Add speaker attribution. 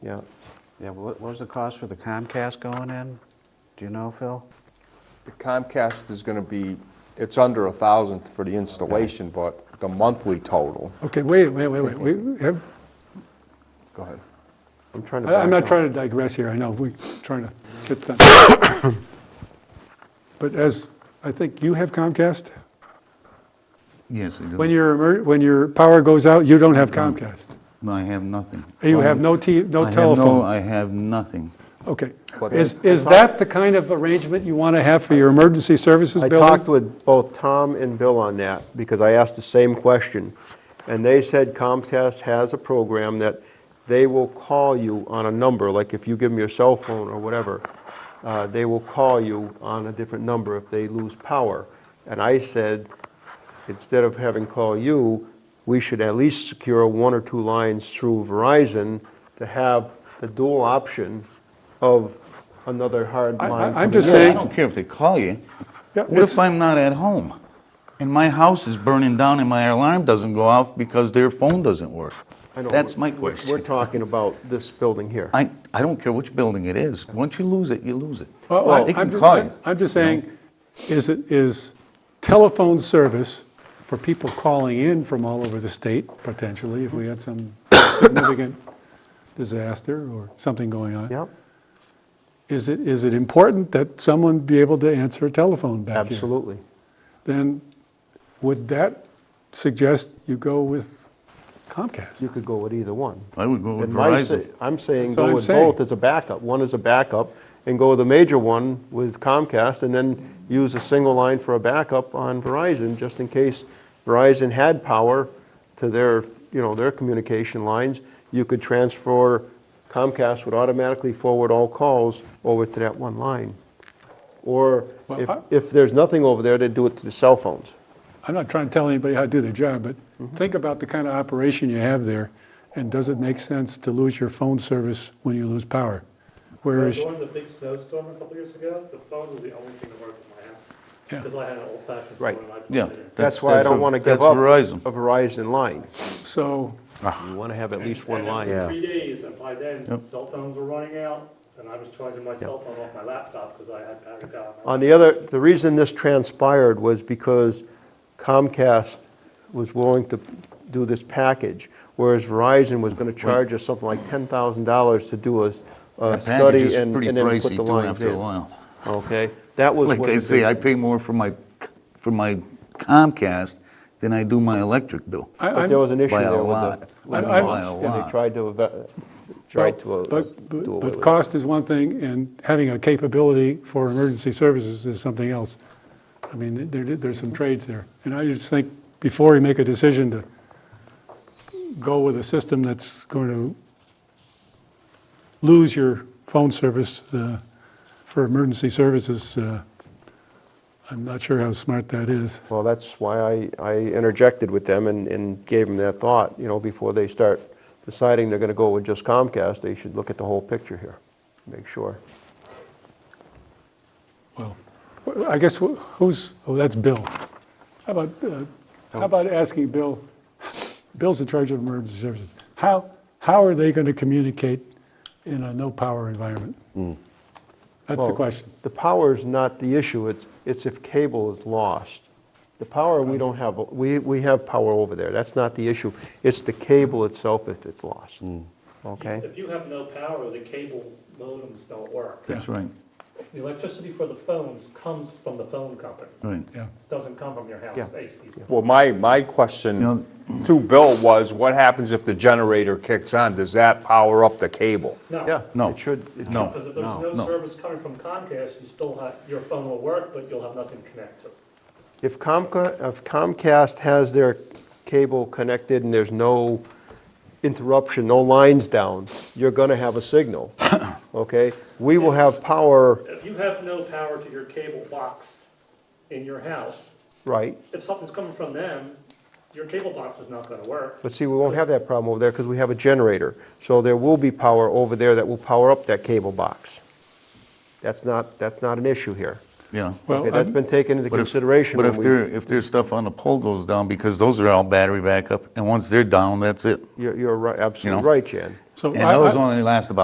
Speaker 1: Yeah, yeah, what what was the cost for the Comcast going in? Do you know, Phil?
Speaker 2: The Comcast is going to be, it's under a 1,000 for the installation, but the monthly total,
Speaker 3: Okay, wait, wait, wait, wait, we- we have-
Speaker 2: go ahead.
Speaker 1: I'm trying to
Speaker 3: I- I'm
Speaker 1: back
Speaker 3: not
Speaker 1: up.
Speaker 3: trying to digress here, I know, we're trying to get them. But as, I think you have Comcast?
Speaker 4: Yes, I do.
Speaker 3: When your, emer- when your power goes out, you don't have Comcast?
Speaker 4: No, I have nothing.
Speaker 3: You
Speaker 4: Well,
Speaker 3: have no T,
Speaker 4: I
Speaker 3: no
Speaker 4: have
Speaker 3: telephone?
Speaker 4: I have nothing.
Speaker 3: Okay.
Speaker 2: But-
Speaker 3: Is, is that the kind of arrangement you want to have for your emergency services
Speaker 5: I
Speaker 3: building?
Speaker 5: talked with both Tom and Bill on that, because I asked the same question. And they said Comcast has a program that they will call you on a number, like if you give them your cell phone or whatever, uh, they will call you on a different number if they lose power. And I said, instead of having call you, we should at least secure one or two lines through Verizon to have the dual option of another hard
Speaker 3: I- I-
Speaker 5: line.
Speaker 3: I'm
Speaker 5: coming
Speaker 3: just
Speaker 5: in.
Speaker 3: saying-
Speaker 4: I don't care if they call you.
Speaker 3: Yeah,
Speaker 4: What
Speaker 3: it's-
Speaker 4: if I'm not at home? And my house is burning down and my alarm doesn't go off because their phone doesn't work?
Speaker 5: I know,
Speaker 4: That's
Speaker 5: we're-
Speaker 4: my
Speaker 5: we're- We're
Speaker 4: question.
Speaker 5: talking about this building here.
Speaker 4: I, I don't care which building it is. Once you lose it, you lose it.
Speaker 3: Uh, Well,
Speaker 4: They
Speaker 3: I- I'm
Speaker 4: can
Speaker 3: ju-
Speaker 4: call you.
Speaker 3: I'm just saying, is, it is telephone service for people calling in from all over the state, potentially, if we had some significant disaster or something going on?
Speaker 5: Yep,
Speaker 3: Is it, is it important that someone be able to answer a telephone back here?
Speaker 5: absolutely.
Speaker 3: Then would that suggest you go with
Speaker 5: You
Speaker 3: Comcast?
Speaker 5: could go with either one.
Speaker 4: I would go with
Speaker 5: And my sa-
Speaker 4: Verizon.
Speaker 5: I'm saying
Speaker 3: That's what
Speaker 5: go
Speaker 3: I'm
Speaker 5: with
Speaker 3: saying.
Speaker 5: both as a backup. One is a backup, and go with the major one with Comcast, and then use a single line for a backup on Verizon, just in case Verizon had power to their, you know, their communication lines. You could transfer, Comcast would automatically forward all calls over to that one line. Or
Speaker 3: Well,
Speaker 5: if,
Speaker 3: I-
Speaker 5: if there's nothing over there, they'd do it to the cell phones.
Speaker 3: I'm not trying to tell anybody how to do their job, but think about the kind of operation you have there, and does it make sense to lose your phone service when you lose power? Whereas,
Speaker 6: During the big snowstorm a couple years ago, the phone was the only thing that worked in my house.
Speaker 3: Yeah.
Speaker 6: Because I had an old fashioned phone
Speaker 5: Right.
Speaker 6: and I plugged
Speaker 4: Yeah.
Speaker 6: it in.
Speaker 5: That's why I
Speaker 4: that's
Speaker 5: don't
Speaker 4: a-
Speaker 5: want to give
Speaker 4: that's
Speaker 5: up a
Speaker 4: Verizon.
Speaker 5: Verizon line.
Speaker 3: so,
Speaker 5: You want to have at least
Speaker 6: And after
Speaker 1: Yeah.
Speaker 6: Three days, and by then, cell phones were running out, and I was charging my cell phone off my laptop because I had battery power.
Speaker 5: On the other, the reason this transpired was because Comcast was willing to do this package, whereas Verizon was going to charge us something like $10,000 to do a, s- a
Speaker 4: That package
Speaker 5: study
Speaker 4: is
Speaker 5: and
Speaker 4: pretty
Speaker 5: and then put
Speaker 4: pricey
Speaker 5: the
Speaker 4: too
Speaker 5: lines
Speaker 4: after a
Speaker 5: in.
Speaker 4: while.
Speaker 5: Okay? That was
Speaker 4: Like
Speaker 5: what.
Speaker 4: I
Speaker 5: the
Speaker 4: say, I
Speaker 5: big-
Speaker 4: pay more for my, for my Comcast than I do my electric bill.
Speaker 3: I-
Speaker 5: But
Speaker 3: I'm.
Speaker 5: there was an issue
Speaker 4: By a lot.
Speaker 5: there with the.
Speaker 3: I'm-
Speaker 5: with the
Speaker 3: I'm-
Speaker 4: By a
Speaker 5: launch, And they
Speaker 4: lot.
Speaker 5: tried to, eva- tried to uh,
Speaker 3: But,
Speaker 5: do away
Speaker 3: but-
Speaker 5: with
Speaker 3: but
Speaker 5: it.
Speaker 3: cost is one thing, and having a capability for emergency services is something else. I mean, there, there's some trades there. And I just think, before we make a decision to go with a system that's going to lose your phone service uh, for emergency services, uh, I'm not sure how smart that is.
Speaker 5: Well, that's why I, I interjected with them and, and gave them that thought, you know, before they start deciding they're gonna go with just Comcast, they should look at the whole picture here, make sure.
Speaker 3: Well, wh- I guess wh- who's, oh, that's Bill. How about, uh, how about asking Bill, Bill's in charge of emergency services. How, how are they going to communicate in a no-power environment? That's the
Speaker 5: Well,
Speaker 3: question.
Speaker 5: The power's not the issue, it's, it's if cable is lost. The power, we don't have, we, we have power over there, that's not the issue. It's the cable itself if it's lost, okay?
Speaker 6: If you have no power, the cable modems don't work.
Speaker 4: That's right,
Speaker 6: The electricity for the phones comes from the phone company,
Speaker 4: right.
Speaker 3: Yeah.
Speaker 6: doesn't come from your house, AC.
Speaker 2: Well, my, my
Speaker 4: You
Speaker 2: question to Bill was, what happens if the generator kicks on? Does that power up the cable?
Speaker 6: No.
Speaker 5: Yeah,
Speaker 4: No.
Speaker 5: it should, it
Speaker 4: No.
Speaker 6: Because if there's no
Speaker 4: no.
Speaker 6: service coming from Comcast, you still have, your phone will work, but you'll have nothing to connect to.
Speaker 5: If Comca- if Comcast has their cable connected and there's no interruption, no lines down, you're going to have a signal, okay? We will have power,
Speaker 6: If you have no power to your cable box in your house,
Speaker 5: right?
Speaker 6: if something's coming from them, your cable box is not gonna work.
Speaker 5: But see, we won't have that problem over there because we have a generator. So there will be power over there that will power up that cable box. That's not, that's not an issue here.
Speaker 4: Yeah.
Speaker 3: Well,
Speaker 5: Okay, that's
Speaker 3: I'm-
Speaker 5: been taken into
Speaker 4: But if-
Speaker 5: consideration
Speaker 4: But
Speaker 5: when
Speaker 4: if
Speaker 5: we,
Speaker 4: there, if there's stuff on the pole goes down, because those are all battery backup, and once they're down, that's it.
Speaker 5: you're, you're right- absolutely
Speaker 4: know.
Speaker 5: right, Jan.
Speaker 3: So
Speaker 4: And
Speaker 3: I-
Speaker 4: those
Speaker 3: I-
Speaker 4: only last about